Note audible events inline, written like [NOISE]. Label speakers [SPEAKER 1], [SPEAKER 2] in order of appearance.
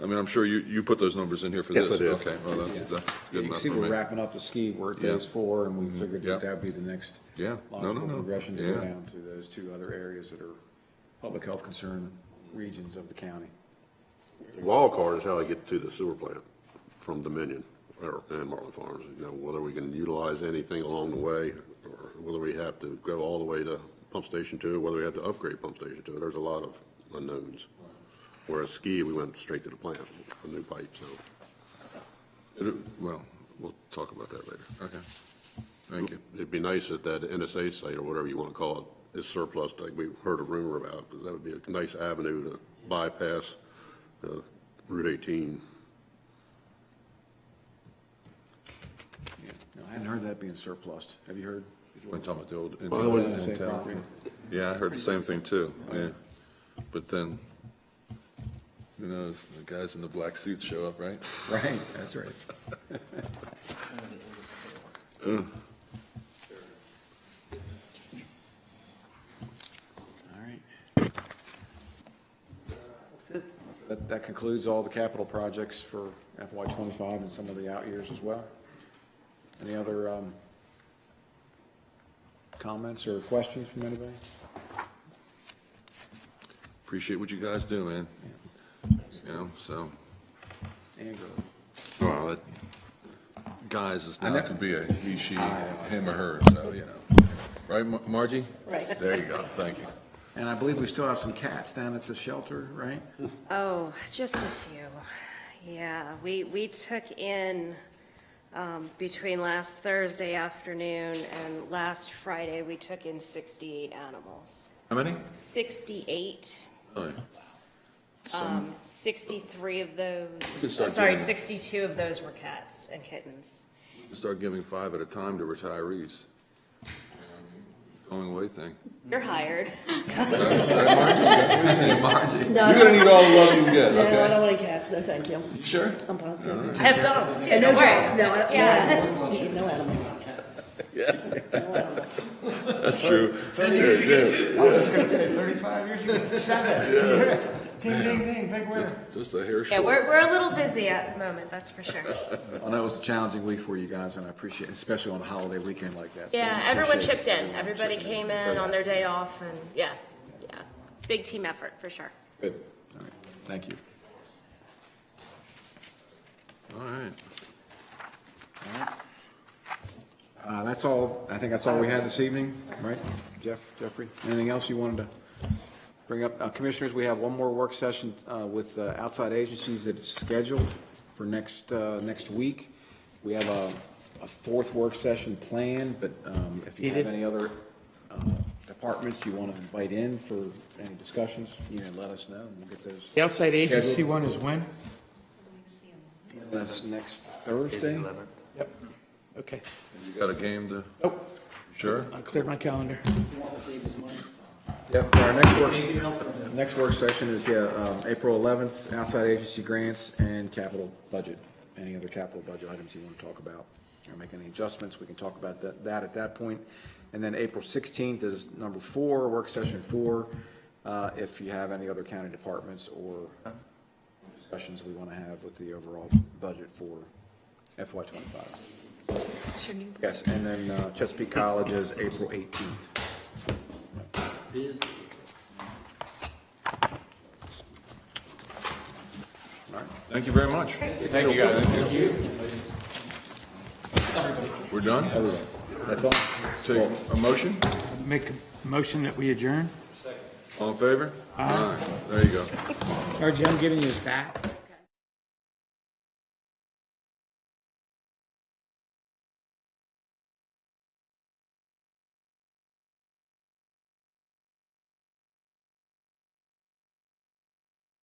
[SPEAKER 1] I mean, I'm sure you, you put those numbers in here for
[SPEAKER 2] Yes,
[SPEAKER 1] this.
[SPEAKER 2] I did.
[SPEAKER 1] Okay, well, that's, that's
[SPEAKER 3] You
[SPEAKER 1] good
[SPEAKER 3] can
[SPEAKER 1] enough
[SPEAKER 3] see
[SPEAKER 1] for
[SPEAKER 3] we're
[SPEAKER 1] me.
[SPEAKER 3] wrapping up the ski, we're at phase
[SPEAKER 1] Yeah.
[SPEAKER 3] four, and we figured
[SPEAKER 1] Yeah.
[SPEAKER 3] that that would be the next
[SPEAKER 1] Yeah. No, no,
[SPEAKER 3] logical
[SPEAKER 1] no.
[SPEAKER 3] progression to go
[SPEAKER 1] Yeah.
[SPEAKER 3] down to those two other areas that are public health concern regions of the county.
[SPEAKER 2] Wild card is how I get to the sewer plant from Dominion or, and Marlin Farms. You know, whether we can utilize anything along the way or whether we have to go all the way to pump station two, whether we have to upgrade pump station two. There's a lot of unknowns. Whereas ski, we went straight to the plant, a new pipe, so
[SPEAKER 1] It- Well, we'll talk about that later. Okay. Thank you.
[SPEAKER 2] it'd be nice if that NSA site or whatever you want to call it is surplus, like we heard a rumor about, because that would be a nice avenue to bypass, uh, Route eighteen.
[SPEAKER 3] Yeah. No, I hadn't heard that being surplus. Have you heard?
[SPEAKER 1] When talking about the old.
[SPEAKER 3] Well,
[SPEAKER 1] Intel-
[SPEAKER 3] I say
[SPEAKER 1] Intel.
[SPEAKER 3] property.
[SPEAKER 1] Yeah, I heard the same thing too, yeah. But then, who knows, the guys in the black suits show up, right?
[SPEAKER 3] Right, that's right. All right. That, that concludes all the capital projects for FY twenty-five and some of the out years as well. Any other, um, comments or questions from anybody?
[SPEAKER 1] Appreciate what you guys do, man. You know, so,
[SPEAKER 3] Andrew?
[SPEAKER 1] well, that, guys is
[SPEAKER 3] I
[SPEAKER 1] not,
[SPEAKER 3] know.
[SPEAKER 1] could be a he, she, him or her, so, you know. Right, Mar- Margie?
[SPEAKER 4] Right.
[SPEAKER 1] There you go, thank you.
[SPEAKER 3] And I believe we still have some cats down at the shelter, right?
[SPEAKER 4] Oh, just a few. Yeah, we, we took in, um, between last Thursday afternoon and last Friday, we took in 68 animals.
[SPEAKER 1] How many?
[SPEAKER 4] 68,
[SPEAKER 1] Oh,
[SPEAKER 4] 63 of those,
[SPEAKER 1] start
[SPEAKER 4] I'm sorry,
[SPEAKER 1] doing-
[SPEAKER 4] 62 of those were cats and kittens.
[SPEAKER 1] Start giving five at a time to retirees. Um, Going away thing.
[SPEAKER 4] You're hired.
[SPEAKER 1] Margie, you're gonna need all the love you can get,
[SPEAKER 5] No, I
[SPEAKER 1] okay?
[SPEAKER 5] don't like cats, no thank you.
[SPEAKER 1] You Sure?
[SPEAKER 5] I'm positive.
[SPEAKER 4] I have dogs too.
[SPEAKER 5] And no
[SPEAKER 4] don't worry.
[SPEAKER 5] dogs, no, I-
[SPEAKER 4] Yeah.
[SPEAKER 5] no animals.
[SPEAKER 1] That's true.
[SPEAKER 3] I was just gonna say thirty-five years, [LAUGHS] you get seven. Ding, ding, ding, big winner.
[SPEAKER 1] Just a hair
[SPEAKER 4] Yeah,
[SPEAKER 1] short.
[SPEAKER 4] we're, we're a little busy at the moment, that's for sure.
[SPEAKER 3] I know it was a challenging week for you guys, and I appreciate, especially on a holiday weekend like that. so I
[SPEAKER 4] Yeah, everyone
[SPEAKER 3] appreciate
[SPEAKER 4] chipped in.
[SPEAKER 3] everyone
[SPEAKER 4] Everybody
[SPEAKER 3] chipping
[SPEAKER 4] came in on their day off and, yeah, yeah. Big team effort, for sure.
[SPEAKER 3] Good, all right, thank you.
[SPEAKER 1] All right.
[SPEAKER 3] Uh, that's all, I think that's all we had this evening, right? Jeff, Jeffrey, anything else you wanted to bring up? Uh, Commissioners, we have one more work session uh, with uh, outside agencies that is scheduled for next, uh, next week. We have a, a fourth work session planned, but um, if you have any other uh, departments you want to invite in for any discussions, you know, let us know, and we'll get those.
[SPEAKER 6] The outside agency
[SPEAKER 3] scheduled.
[SPEAKER 6] one is when?
[SPEAKER 3] That's next Thursday.
[SPEAKER 6] Yep. Okay.
[SPEAKER 1] You got a game to,
[SPEAKER 6] Oh,
[SPEAKER 1] sure?
[SPEAKER 6] I cleared my calendar.
[SPEAKER 3] Yep, our next work, next work session is, yeah, um, April 11th, outside agency grants and capital budget. Any other capital budget items you want to talk about, or make any adjustments, we can talk about that, that at that point. And then April 16th is number four, work session four, uh, if you have any other county departments or discussions we want to have with the overall budget for FY '25. Yes, and then uh, Chesapeake College is April 18th.
[SPEAKER 1] Thank you very much. Thank you, guys. Thank you. We're done?
[SPEAKER 3] That's all.
[SPEAKER 1] Take a motion?
[SPEAKER 6] Make a motion that we adjourn.
[SPEAKER 1] Uh-huh. All in favor? Aye. There you go.
[SPEAKER 6] Archie, I'm giving you this back.